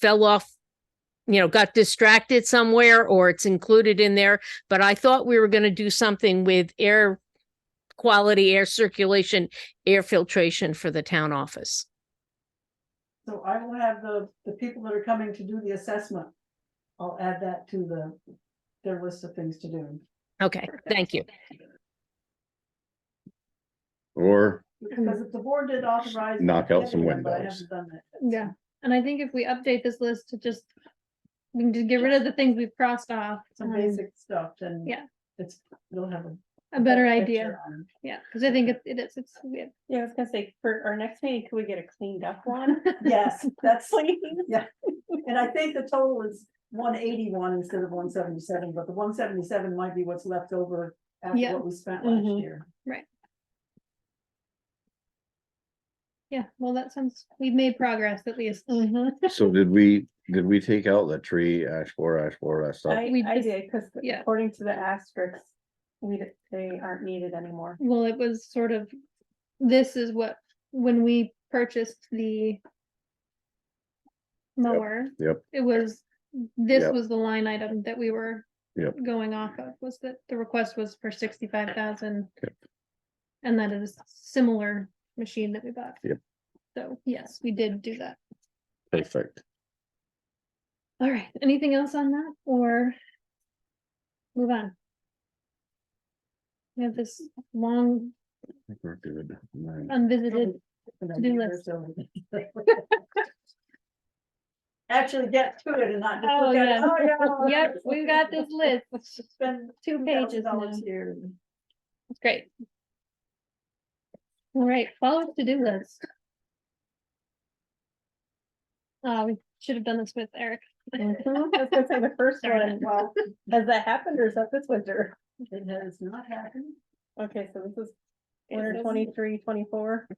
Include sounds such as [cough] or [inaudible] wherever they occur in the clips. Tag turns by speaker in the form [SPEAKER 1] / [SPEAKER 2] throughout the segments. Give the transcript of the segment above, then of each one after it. [SPEAKER 1] fell off, you know, got distracted somewhere or it's included in there. But I thought we were going to do something with air quality, air circulation, air filtration for the town office.
[SPEAKER 2] So I will have the, the people that are coming to do the assessment. I'll add that to the, their list of things to do.
[SPEAKER 3] Hmm.
[SPEAKER 1] Okay, thank you.
[SPEAKER 4] [laughs]
[SPEAKER 5] Or
[SPEAKER 2] Because if the board did authorize.
[SPEAKER 5] Knock out some
[SPEAKER 2] everyone, but I
[SPEAKER 5] windows.
[SPEAKER 2] haven't done that.
[SPEAKER 3] Yeah, and I think if we update this list to just, we can just get rid of the things we've crossed off.
[SPEAKER 2] Some
[SPEAKER 3] um,
[SPEAKER 2] basic stuff and.
[SPEAKER 3] Yeah.
[SPEAKER 2] It's, you'll have a.
[SPEAKER 3] A better
[SPEAKER 2] picture
[SPEAKER 3] idea,
[SPEAKER 2] on it.
[SPEAKER 3] yeah, because I think it it is, it's, yeah.
[SPEAKER 4] Yeah, I was gonna say, for our next meeting, could we get a cleaned up [laughs] one?
[SPEAKER 2] Yes, that's,
[SPEAKER 4] Please.
[SPEAKER 2] and I think the total is one eighty-one instead of one seventy-seven, but the one seventy-seven might be what's left over after
[SPEAKER 3] Yeah. Mm-hmm.
[SPEAKER 2] what we spent last
[SPEAKER 4] Mhm.
[SPEAKER 2] year.
[SPEAKER 3] Yeah, well, that sounds, we've made progress at least.
[SPEAKER 2] Mm-hmm.
[SPEAKER 5] so did we, did we take out the tree, ash four, ash four, that stuff?
[SPEAKER 4] I,
[SPEAKER 3] We
[SPEAKER 4] I
[SPEAKER 3] just-
[SPEAKER 4] did, because
[SPEAKER 3] yeah.
[SPEAKER 4] according to the asterisks, we, d- they aren't needed [laughs] anymore.
[SPEAKER 3] Well, it was sort of, this is what, when we purchased the mower.
[SPEAKER 5] yep.
[SPEAKER 3] It was, this
[SPEAKER 5] Yep.
[SPEAKER 3] was the line item that we were
[SPEAKER 5] Yep.
[SPEAKER 3] going off of, was that the request was for sixty-five thousand.
[SPEAKER 5] Yep.
[SPEAKER 3] And that is similar machine that we bought.
[SPEAKER 5] Yep.
[SPEAKER 3] So, yes, we did do that.
[SPEAKER 5] Perfect.
[SPEAKER 3] All right, anything else on that or move on? We have this long
[SPEAKER 5] I think we're good. Right.
[SPEAKER 3] unvisited
[SPEAKER 2] Probably
[SPEAKER 3] do
[SPEAKER 2] it's been a year, so- Actually get to it and not. just
[SPEAKER 3] Oh,
[SPEAKER 2] look at it,
[SPEAKER 3] yes.
[SPEAKER 2] "Oh, [laughs] yeah."
[SPEAKER 3] [laughs] Yep,
[SPEAKER 4] [laughs]
[SPEAKER 3] we've got this list.
[SPEAKER 2] [laughs] Spend
[SPEAKER 3] Two pages now.
[SPEAKER 2] $2,000 here. and-
[SPEAKER 3] It's great. All right, follow up to-do list. Uh, we should have done this with Eric.
[SPEAKER 4] I was gonna say the first
[SPEAKER 3] Darn
[SPEAKER 4] one,
[SPEAKER 3] it.
[SPEAKER 4] well, has that happened or is that this winter?
[SPEAKER 2] It has not happened.
[SPEAKER 4] Okay, so this is
[SPEAKER 3] It
[SPEAKER 4] winter
[SPEAKER 3] doesn't-
[SPEAKER 4] twenty-three, twenty-four.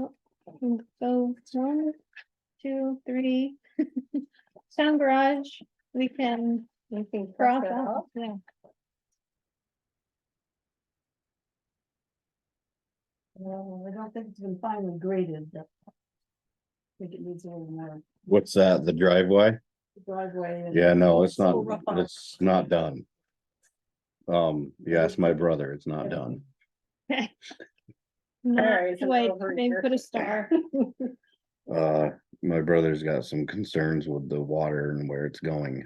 [SPEAKER 3] So one, two, three. [laughs] Sound garage, we can
[SPEAKER 4] You can cross
[SPEAKER 3] cross
[SPEAKER 4] it
[SPEAKER 3] out,
[SPEAKER 4] off.
[SPEAKER 3] yeah.
[SPEAKER 2] Well, I don't think it's been finally graded. but I think it needs a little more
[SPEAKER 5] What's that, the driveway?
[SPEAKER 2] driveway. and-
[SPEAKER 5] Yeah, no, it's not,
[SPEAKER 4] Little rough on it.
[SPEAKER 5] it's not done. Um, yeah, it's my brother, it's not done.
[SPEAKER 3] Not
[SPEAKER 4] right, so
[SPEAKER 3] Wait,
[SPEAKER 4] over
[SPEAKER 3] maybe
[SPEAKER 4] here.
[SPEAKER 3] put a
[SPEAKER 4] [laughs]
[SPEAKER 3] star.
[SPEAKER 5] Uh, my brother's got some concerns with the water and where it's going.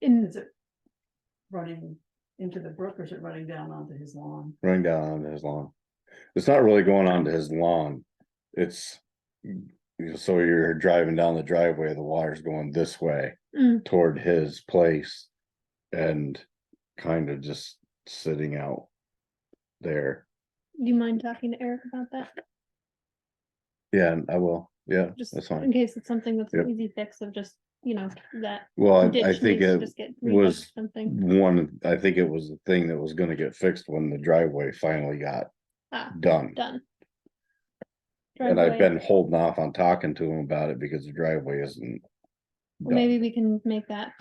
[SPEAKER 3] In,
[SPEAKER 2] Is it running into the brook or is it running down onto his lawn?
[SPEAKER 5] running down onto his lawn. It's not really going onto his lawn. It's you know, so you're driving down the driveway, the water's going this way
[SPEAKER 3] Mm.
[SPEAKER 5] toward his place and kind of just sitting out there.
[SPEAKER 3] do you mind talking to Eric about that?
[SPEAKER 5] Yeah, and I will. Yeah,
[SPEAKER 3] Just
[SPEAKER 5] that's
[SPEAKER 3] in
[SPEAKER 5] fine.
[SPEAKER 3] case it's something that's
[SPEAKER 5] Yep.
[SPEAKER 3] an easy fix of just, you know, that.
[SPEAKER 5] Well,
[SPEAKER 3] ditch
[SPEAKER 5] I- I think
[SPEAKER 3] needs to
[SPEAKER 5] it
[SPEAKER 3] just get redone or
[SPEAKER 5] was
[SPEAKER 3] Something,
[SPEAKER 5] one, I think it was the thing that was gonna get fixed when the driveway finally got
[SPEAKER 3] ah,
[SPEAKER 5] done.
[SPEAKER 3] done.
[SPEAKER 5] And I've
[SPEAKER 3] Driveway.
[SPEAKER 5] been holding off on talking to him about it because the driveway isn't.
[SPEAKER 3] Well,
[SPEAKER 5] done.
[SPEAKER 3] Maybe we can make that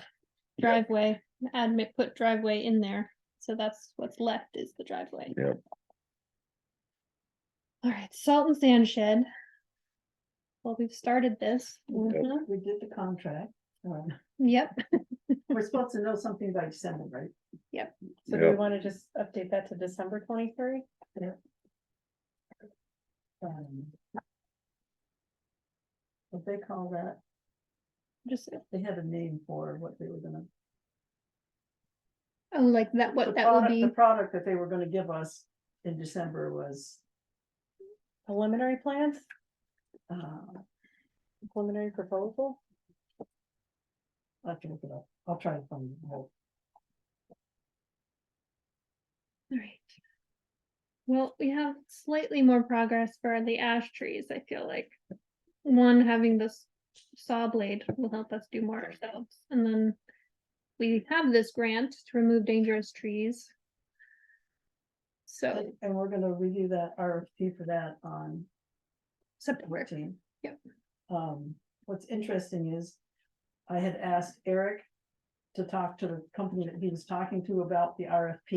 [SPEAKER 3] driveway, add, ma- put driveway in there, so that's what's left is the driveway.
[SPEAKER 5] Yep.
[SPEAKER 3] All right, salt and sand shed. Well, we've started this. Mhm.
[SPEAKER 2] We did the contract. um,
[SPEAKER 3] Yep,
[SPEAKER 2] We're supposed to know something by December, right?
[SPEAKER 4] So do
[SPEAKER 5] Yeah.
[SPEAKER 4] we wanna just update that to December twenty-three?
[SPEAKER 2] Um, What they call that,
[SPEAKER 3] just,
[SPEAKER 2] they had a name for what they were gonna.
[SPEAKER 3] oh, like that,
[SPEAKER 2] the
[SPEAKER 3] what that will
[SPEAKER 2] product-
[SPEAKER 3] be,
[SPEAKER 2] The product that they were gonna give us in December was,
[SPEAKER 4] Preliminary plans,
[SPEAKER 2] uh,
[SPEAKER 4] preliminary proposal?
[SPEAKER 2] I have to look it up. I'll try and find the whole.
[SPEAKER 3] all right. Well, we have slightly more progress for the ash trees, I feel like. One, having this saw blade will help us do more ourselves, and then. We have this grant to remove dangerous trees. So,
[SPEAKER 2] And and we're gonna review that RFP for that on
[SPEAKER 3] September,
[SPEAKER 2] fourteen.
[SPEAKER 3] Yep.
[SPEAKER 2] Um, what's interesting is I had asked Eric to talk to the company that he was talking to about the RFP.